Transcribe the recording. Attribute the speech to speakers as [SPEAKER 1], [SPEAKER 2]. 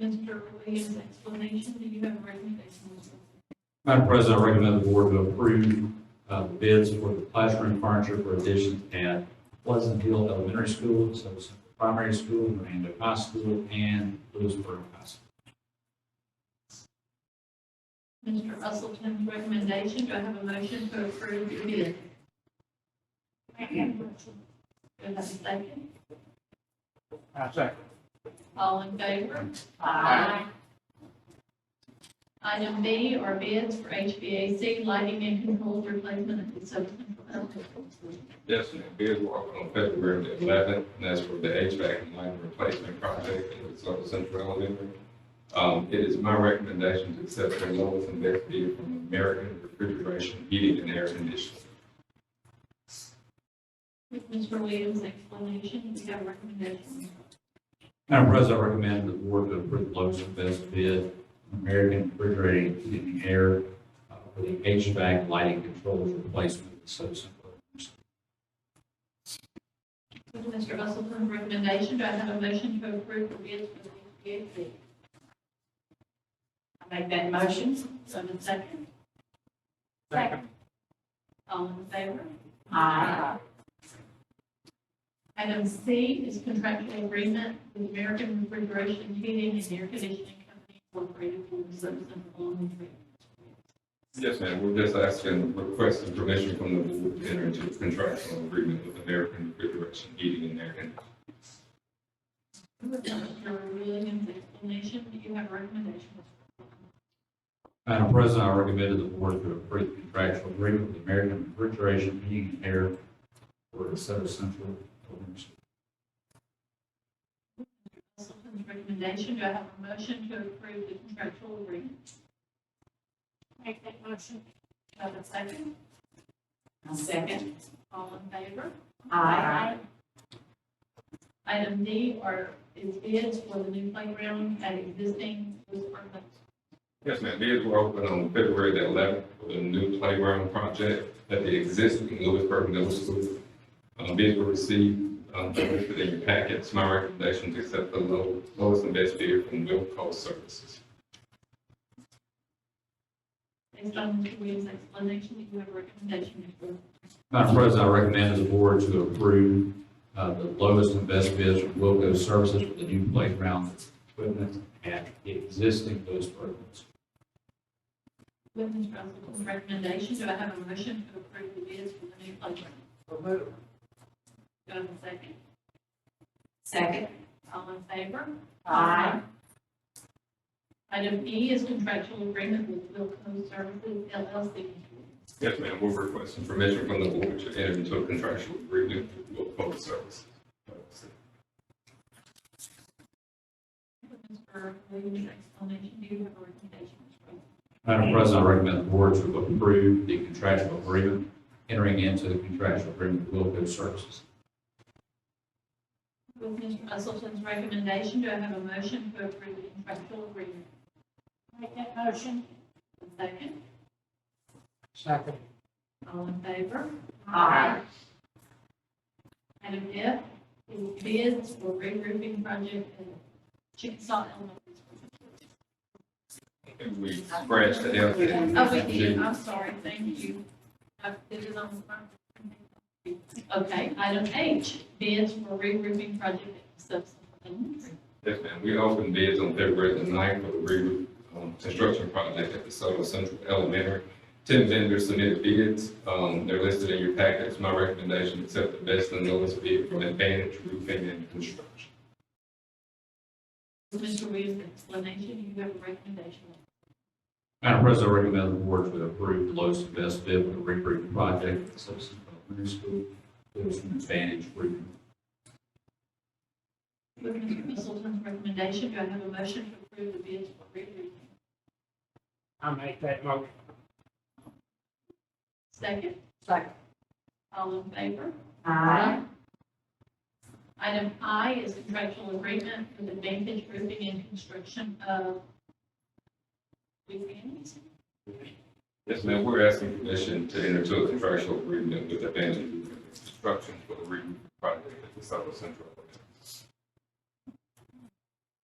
[SPEAKER 1] Mr. Williams' explanation, do you have a recommendation?
[SPEAKER 2] Madam President, I recommend the board to approve uh, bids for the classroom furniture for additions at Pleasant Hill Elementary School, Silver Central Primary School, Miranda High School, and Lewisburg High School.
[SPEAKER 1] Mr. Russellson's recommendation, do I have a motion to approve the bid? Do I have a second?
[SPEAKER 3] I Uh, second.
[SPEAKER 1] All in favor?
[SPEAKER 3] Aye.
[SPEAKER 1] Item B are bids for HVAC lighting and controls replacement at the South Central Elementary School.
[SPEAKER 4] Yes, sir. Bids were open on February the eleventh, and that's for the HVAC and lighting replacement project in South Central Elementary. Um, it is my recommendation to accept the lowest and best bid from American Refrigeration Heating and Air Conditioning.
[SPEAKER 1] With Mr. Williams' explanation, do you have a recommendation?
[SPEAKER 2] Madam President, I recommend the board to approve the lowest and best bid, American Refrigerating Heating and Air, uh, for the HVAC lighting controls replacement at Silver Central.
[SPEAKER 1] With Mr. Russellson's recommendation, do I have a motion to approve the bids for the HVAC? I make that motion, so I have a second.
[SPEAKER 3] Second.
[SPEAKER 1] All in favor?
[SPEAKER 3] Aye.
[SPEAKER 1] Item C is contractual agreement with American Refrigeration Heating and Air Conditioning Company Incorporated for the Simpson Elementary.
[SPEAKER 4] Yes, ma'am. We're just asking, requesting permission from the board to enter into a contractual agreement with American Refrigeration Heating and Air Conditioning.
[SPEAKER 1] With Mr. Williams' explanation, do you have a recommendation?
[SPEAKER 2] Madam President, I recommend the board to approve the contractual agreement with American Refrigeration Heating and Air for the Silver Central Elementary School.
[SPEAKER 1] Russellson's recommendation, do I have a motion to approve the contractual agreement? Make that motion. Do I have a second?
[SPEAKER 5] I'll second.
[SPEAKER 1] All in favor?
[SPEAKER 5] Aye.
[SPEAKER 1] Item D are, is bids for the new playground at existing Lewisburg Middle School.
[SPEAKER 4] Yes, ma'am. Bids were open on February the eleventh for the new playground project at the existing Lewisburg Middle School. Um, bids were received, um, they're listed in your packets. My recommendation is accept the low, lowest and best bid from Wilco Services.
[SPEAKER 1] Based on Mr. Williams' explanation, do you have a recommendation?
[SPEAKER 2] Madam President, I recommend to the board to approve uh, the lowest and best bids from Wilco Services for the new playground equipment at existing Lewisburg.
[SPEAKER 1] With Ms. Russellson's recommendation, do I have a motion to approve the bids for the new playground? Do I have a second?
[SPEAKER 5] Second.
[SPEAKER 1] All in favor? Item E is contractual agreement with Wilco Services LLC.
[SPEAKER 4] Yes, ma'am. We're requesting permission from the board to enter into a contractual agreement with Wilco Services.
[SPEAKER 1] With Mr. Williams' explanation, do you have a recommendation?
[SPEAKER 2] Madam President, I recommend the board to approve the contractual agreement, entering into the contractual agreement with Wilco Services.
[SPEAKER 1] With Mr. Russellson's recommendation, do I have a motion to approve the contractual agreement? Make that motion. Second,
[SPEAKER 3] Second.
[SPEAKER 1] all in favor?
[SPEAKER 5] Aye.
[SPEAKER 1] Item F is bids for regrouping project at Chickasaw Elementary. School.
[SPEAKER 4] And we scratched the L and
[SPEAKER 1] Oh, we did, I'm sorry, thank you. I did it on the front. Okay, item H, bids for regrouping project at Subs Elementary.
[SPEAKER 4] Yes, ma'am. We opened bids on February the ninth for the re um, construction project at DeSoto Central Elementary. Ten vendors submitted bids. Um, they're listed in your packets. My recommendation, accept the best and lowest bid from Advantage Roofing and Construction.
[SPEAKER 1] With Mr. Williams' explanation, you have a recommendation.
[SPEAKER 2] Madam President, I recommend the board to approve the lowest and best bid for the regroup project at Silver Central Elementary School. It was an advantage roofing.
[SPEAKER 1] With Mr. Mistletoe's recommendation, do I have a motion to approve the bids for regrouping?
[SPEAKER 3] I make that motion.
[SPEAKER 1] Second,
[SPEAKER 5] Second.
[SPEAKER 1] all in favor?
[SPEAKER 5] Aye.
[SPEAKER 1] Item I is contractual agreement with Advantage Roofing and Construction of Louisiana.
[SPEAKER 4] Yes, ma'am. We're asking permission to enter into a contractual agreement with Advantage Roofing and Construction for the re project at DeSoto Central Elementary.